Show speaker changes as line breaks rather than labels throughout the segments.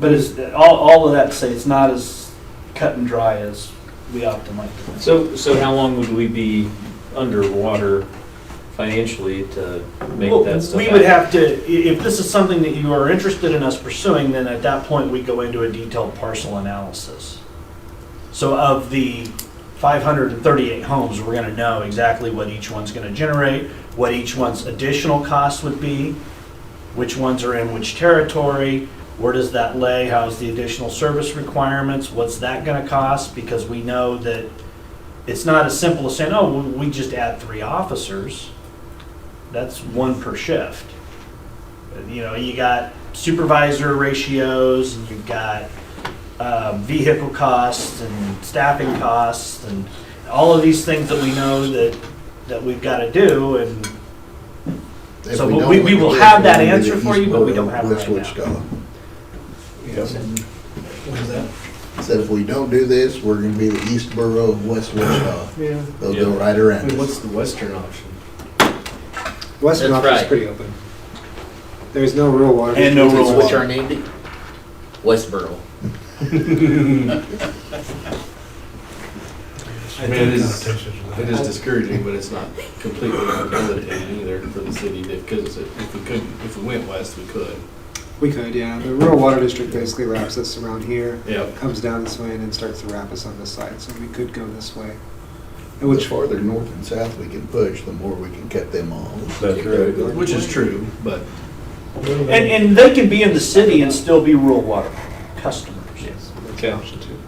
But it's, all, all of that to say, it's not as cut and dry as we often like to think.
So, so how long would we be underwater financially to make
Well,
that stuff
We
happen?
would have to, i- if this is something that you are interested in us pursuing, then at that point, we go into a detailed parcel analysis. So of the 538 homes, we're going to know exactly what each one's going to generate, what each one's additional cost would be, which ones are in which territory, where does that lay, how's the additional service requirements, what's that going to cost? Because we know that it's not as simple as saying, oh, we we just add three officers. That's one per shift. You know, you got supervisor ratios, and you've got uh, vehicle costs and staffing costs, and all of these things that we know that, that we've got to do, and
If
So
don't
we-
look
we
at
will
this,
have that
we'll do the
answer for you, but we
East
don't
Bud
have it
West
right now.
Wichita.
Yes, and what is that?
Said if we don't do this, we're gonna be the east borough of West Wichita.
Yeah.
They'll
Yeah.
go right around us.
what's the western option?
Western
That's
office is
right.
pretty open. There's no rural water.
And no rural
What's
water.
our name? Westboro.
I
Man,
think
it
it's-
is, it
It
is
is discouraging, but it's not completely debilitating either for the city, because if we could, if we went west, we could.
We could, yeah. The rural water district basically wraps us around here,
Yep.
comes down this way, and then starts to wrap us on this side. So we could go this way. And
The
Which
farther north and south we can push, the more we can cut them off.
That's right.
Which is true, but
and, and they can be in the city and still be rural water customers.
Okay.
option two.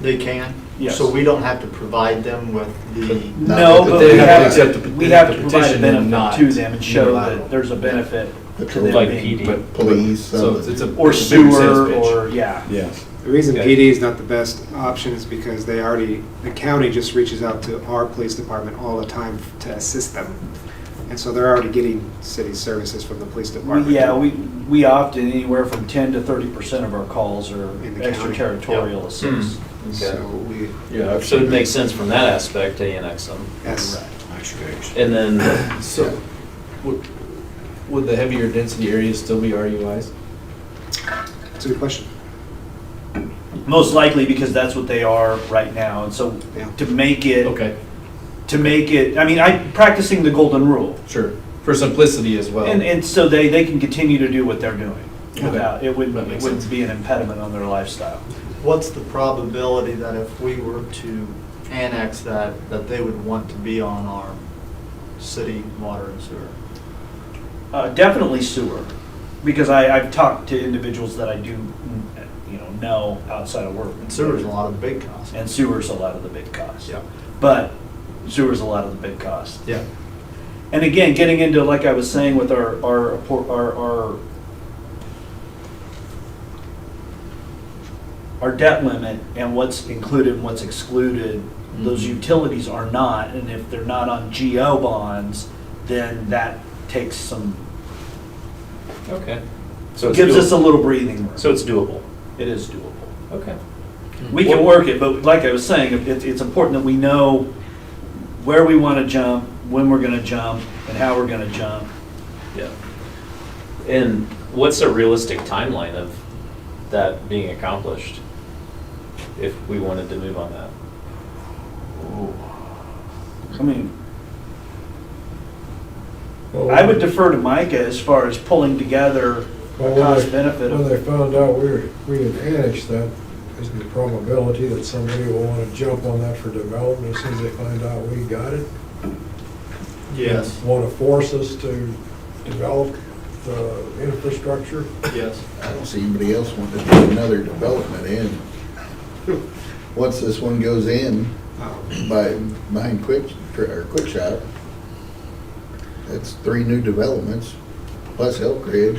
They can?
Yes.
So we don't have to provide them with the,
No, but we
They have
have
to
to,
accept the-
we
they
have
have
to
to
provide a
petition and
benefit
not
to them and show that
unilateral.
there's a benefit to
Patrol,
them
Like
being-
PD.
but
police,
so it's it's
something.
a
Or
it's a bigger sales
sewer,
pitch.
or, yeah.
Yes.
The reason
Okay.
PD is not the best option is because they already, the county just reaches out to our police department all the time to assist them. And so they're already getting city services from the police department.
Yeah, we, we often, anywhere from 10 to 30% of our calls are
In the county.
extraterritorial assists.
Hmm.
So we,
Yeah.
So it makes sense from that aspect to annex them.
yes.
And then,
So, would, would the heavier density areas still be RUIs?
That's a good question.
Most likely because that's what they are right now. And so
Yeah.
to make it,
Okay,
to make it, I mean, I, practicing the golden rule.
sure, for simplicity as well.
And, and so they, they can continue to do what they're doing
Okay.
without, it
That
wouldn't, it
makes
wouldn't
sense.
be an impediment on their lifestyle.
what's the probability that if we were to annex that, that they would want to be on our city water and sewer?
Uh, definitely sewer, because I, I've talked to individuals that I do, mm, you know, know outside of work.
And sewer's a lot of the big cost.
And sewer's a lot of the big cost.
Yeah,
But sewer's a lot of the big cost.
yeah.
And again, getting into, like I was saying with our, our, por- our, our, our debt limit and what's included and what's excluded, those
Mm-hmm.
Mhm.
utilities are not, and if they're not on GO bonds, then that takes some,
okay. So it's
gives us a
doable.
little breathing room.
So it's doable.
It is doable.
Okay.
We can work it, but like I was saying, it, it's important that we know where we want to jump, when we're going to jump, and how we're going to jump.
Yeah. And what's a realistic timeline of that being accomplished? If we wanted to move on that?
I mean, I would defer to Micah as far as pulling together a cost benefit.
When
of-
they found out we were, we had annexed that, there's the probability that somebody will want to jump on that for development as soon as they find out we got it.
Yes,
Want to force us to develop the infrastructure.
yes.
I don't see anybody else wanting to do another development in. Once this one goes in,
Um,
by, behind Quick, or Quick Shop, that's three new developments, plus Elk Ridge.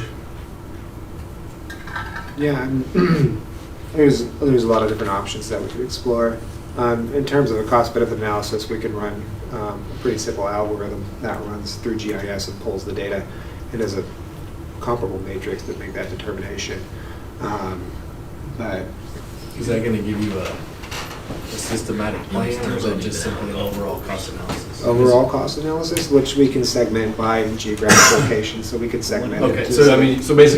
Yeah, I'm- there's, there's a lot of different options that we could explore. Um, in terms of a cost benefit analysis, we can run um, a pretty simple algorithm that runs through GIS and pulls the data and does a comparable matrix to make that determination. Um, but
Is that gonna give you a, a systematic plan, or is it just simply overall cost analysis?
overall cost analysis, which we can segment by geographic location, so we could segment it.
Okay,
to-
so I mean, so basically